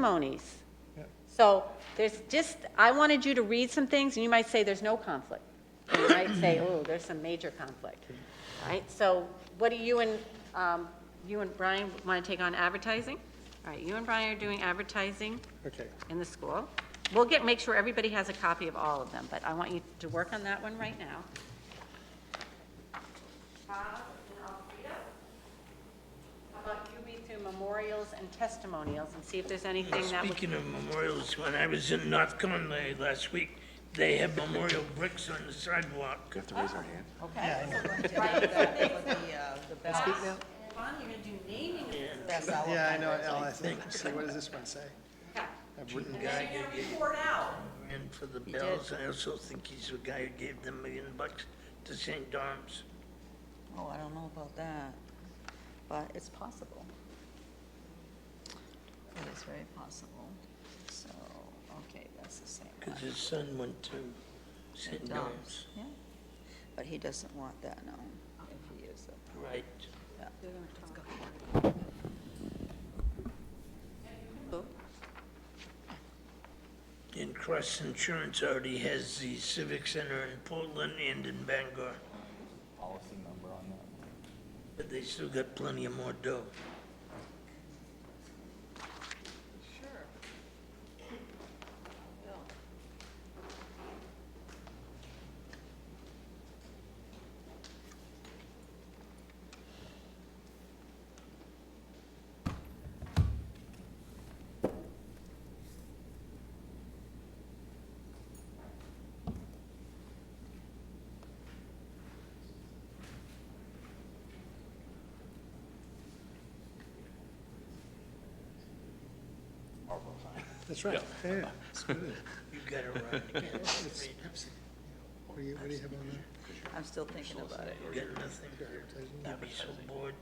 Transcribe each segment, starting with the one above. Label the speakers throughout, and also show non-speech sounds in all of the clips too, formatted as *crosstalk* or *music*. Speaker 1: testimonies. So there's just, I wanted you to read some things, and you might say there's no conflict. And you might say, oh, there's some major conflict, All right? So what do you and, um, you and Brian want to take on advertising? All right, you and Brian are doing advertising
Speaker 2: Okay,
Speaker 1: in the school. We'll get, make sure everybody has a copy of all of them, but I want you to work on that one right now. Bob and Alfreda, how about you read through memorials and testimonials and see if there's anything that would...
Speaker 3: Speaking of memorials, when I was in North Conway last week, they had memorial bricks on the sidewalk.
Speaker 4: have to raise our hand.
Speaker 1: uh, Ron, you're gonna do naming of this.
Speaker 2: yeah, I know, Al, I think, so what does this one say? I've written-
Speaker 3: Guy
Speaker 1: You're gonna report out.
Speaker 3: in for the bells, I also think he's the guy who gave them a million bucks to St. Dom's.
Speaker 5: Oh, I don't know about that, but it's possible. It is very possible. So, okay, that's the same.
Speaker 3: Because his son went to St. Dom's,
Speaker 5: Yeah, but he doesn't want that known if he is a,
Speaker 3: right? And Cross Insurance already has the Civic Center in Portland and in Bangor,
Speaker 4: Policy number on that.
Speaker 3: but they still got plenty of more dough.
Speaker 2: That's right, yeah,
Speaker 3: You got it
Speaker 4: *laughs*
Speaker 3: right again.
Speaker 2: what do you, what do you have on
Speaker 5: I'm still thinking about it.
Speaker 3: You got nothing.
Speaker 2: there?
Speaker 3: You'd be so bored.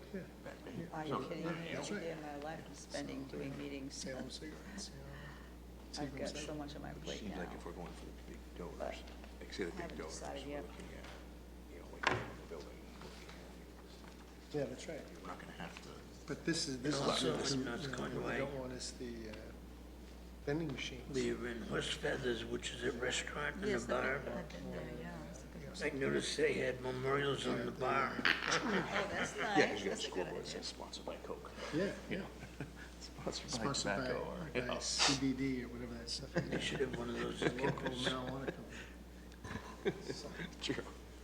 Speaker 5: Are you kidding me? Every
Speaker 2: right.
Speaker 5: day of my life I'm spending doing meetings.
Speaker 2: Salem cigarettes, you know.
Speaker 5: I've got so
Speaker 2: Seagram's.
Speaker 5: much on my plate
Speaker 4: Seems like
Speaker 5: now.
Speaker 4: if we're going for the big donors, like say the
Speaker 5: haven't
Speaker 4: big donors, we're
Speaker 5: decided
Speaker 4: looking
Speaker 5: yet.
Speaker 4: at, you know, like the building. looking
Speaker 2: Yeah, that's right,
Speaker 4: at- We're not gonna have to,
Speaker 2: but this is, this is,
Speaker 3: Also,
Speaker 2: this
Speaker 3: in
Speaker 2: is-
Speaker 3: North
Speaker 2: you know, what
Speaker 3: Conway.
Speaker 2: we don't want is the uh, vending machines.
Speaker 3: We were in Horse Feathers, which is a restaurant and a
Speaker 5: Yes, I've
Speaker 3: bar.
Speaker 5: been I've been there, yeah. it's a
Speaker 3: I
Speaker 5: good-
Speaker 3: noticed they had memorials on the bar.
Speaker 5: Oh, that's
Speaker 4: yeah,
Speaker 5: nice.
Speaker 4: 'cause you got
Speaker 5: That's a good
Speaker 4: scoreboards,
Speaker 5: idea.
Speaker 4: that's sponsored by Coke,
Speaker 2: Yeah,
Speaker 4: you know? Sponsored by
Speaker 2: sponsored by,
Speaker 4: tobacco or, you
Speaker 2: by
Speaker 4: know. *laughs*
Speaker 2: CBD or whatever that stuff
Speaker 3: They
Speaker 2: is,
Speaker 3: should have one of those
Speaker 2: local
Speaker 3: locals.
Speaker 2: marijuana
Speaker 4: True.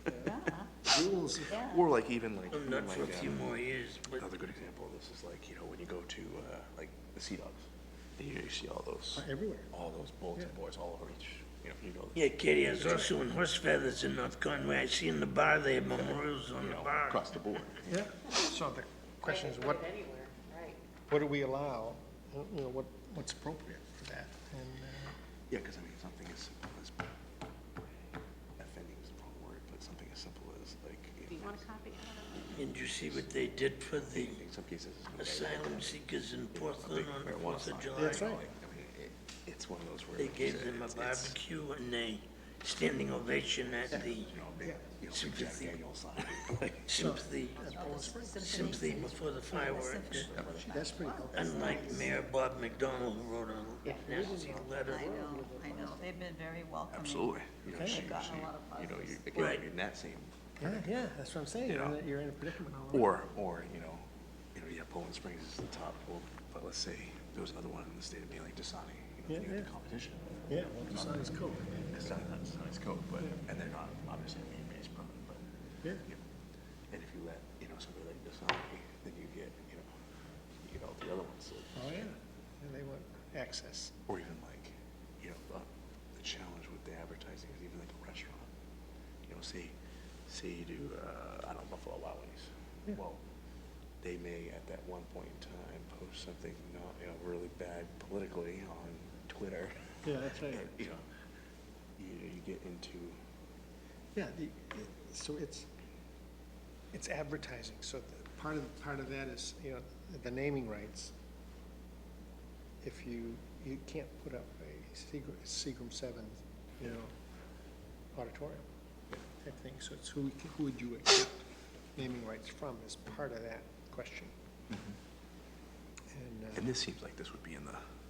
Speaker 5: Yeah.
Speaker 2: company. Rules,
Speaker 4: Or like even like,
Speaker 3: Well,
Speaker 4: even
Speaker 3: Not
Speaker 4: like,
Speaker 3: for a few
Speaker 4: um,
Speaker 3: more years, but
Speaker 4: another good example of this is like, you know, when you go to, uh, like the Sea Dogs, you see all those,
Speaker 2: everywhere,
Speaker 4: all those bulletin
Speaker 2: Yeah.
Speaker 4: boards all over each, you know, you go.
Speaker 3: yeah, Katie, I was also in Horse Feathers in North Conway. I see in the bar, they have memorials on
Speaker 4: you
Speaker 3: the
Speaker 4: know,
Speaker 3: bar.
Speaker 4: Across the board.
Speaker 2: yeah, so the question is, what,
Speaker 1: Anywhere, right.
Speaker 2: what do we allow, you know, what, what's appropriate for that? And, uh,
Speaker 4: Yeah, because I mean, something as simple as, offending is the wrong word, but something as simple as like,
Speaker 1: Do
Speaker 4: you
Speaker 1: you
Speaker 4: know,
Speaker 1: want a copy?
Speaker 3: And you see what they did for the
Speaker 4: in some cases. it's okay,
Speaker 3: asylum seekers in
Speaker 4: a
Speaker 3: Portland
Speaker 4: big
Speaker 3: on the
Speaker 4: marijuana
Speaker 3: Fourth of
Speaker 4: sign,
Speaker 3: July?
Speaker 2: That's
Speaker 4: you know,
Speaker 2: right.
Speaker 4: like, I mean, it- It's one of those where.
Speaker 3: They
Speaker 4: like you
Speaker 3: gave
Speaker 4: said,
Speaker 3: them a
Speaker 4: it's- it's,
Speaker 3: barbecue and a standing ovation at the
Speaker 4: You know, a big, you know, big Jack
Speaker 3: Sympathy.
Speaker 4: Daniel's sign. *laughs* like,
Speaker 3: sympathy, sympathy before the fireworks.
Speaker 2: That's pretty helpful.
Speaker 3: Unlike Mayor Bob McDonald, who wrote a nasty letter.
Speaker 5: I know, I know. They've been very welcoming.
Speaker 4: Absolutely. You know,
Speaker 2: Okay.
Speaker 4: she,
Speaker 5: I've gotten a
Speaker 4: she,
Speaker 5: lot of
Speaker 4: you know, you,
Speaker 5: positives.
Speaker 4: again,
Speaker 3: Right.
Speaker 4: you're in that same
Speaker 2: Yeah, yeah, that's what I'm saying, you're in
Speaker 4: Yeah.
Speaker 2: a- you're in a predicament. all right.
Speaker 4: Or, or, you know, you know, yeah, Poland Springs is the top, well, but let's say there was another one in the state of Maine, like Dasani, you
Speaker 2: Yeah,
Speaker 4: know, you had
Speaker 2: yeah.
Speaker 4: the competition.
Speaker 2: Yeah, well, the sun is cool.
Speaker 4: Dasani, not Dasani's Coke, but, and they're not, obviously, a Maine-based brand, but,
Speaker 2: Yeah.
Speaker 4: you know, and if you let, you know, somebody like Dasani, then you get, you know, you get all the other ones, that-
Speaker 2: Oh, yeah, and they want access.
Speaker 4: or even like, you know, the, the challenge with the advertising is even like a restaurant. You know, say, say you do, uh, I don't know, Buffalo Wild Wings. Well, they may at that one point in time post something not, you know, really bad politically on Twitter. *laughs*
Speaker 2: Yeah, that's right.
Speaker 4: And, You know, you, you get into,
Speaker 2: Yeah, the, it- so it's, it's advertising, so the, part of, part of that is, you know, the naming rights. If you, you can't put up a Seagram, Seagram Seven, you know, auditorium type thing, so it's who, who would you accept naming rights from is part of that question. uh, And, uh,
Speaker 4: and this seems like this would be in the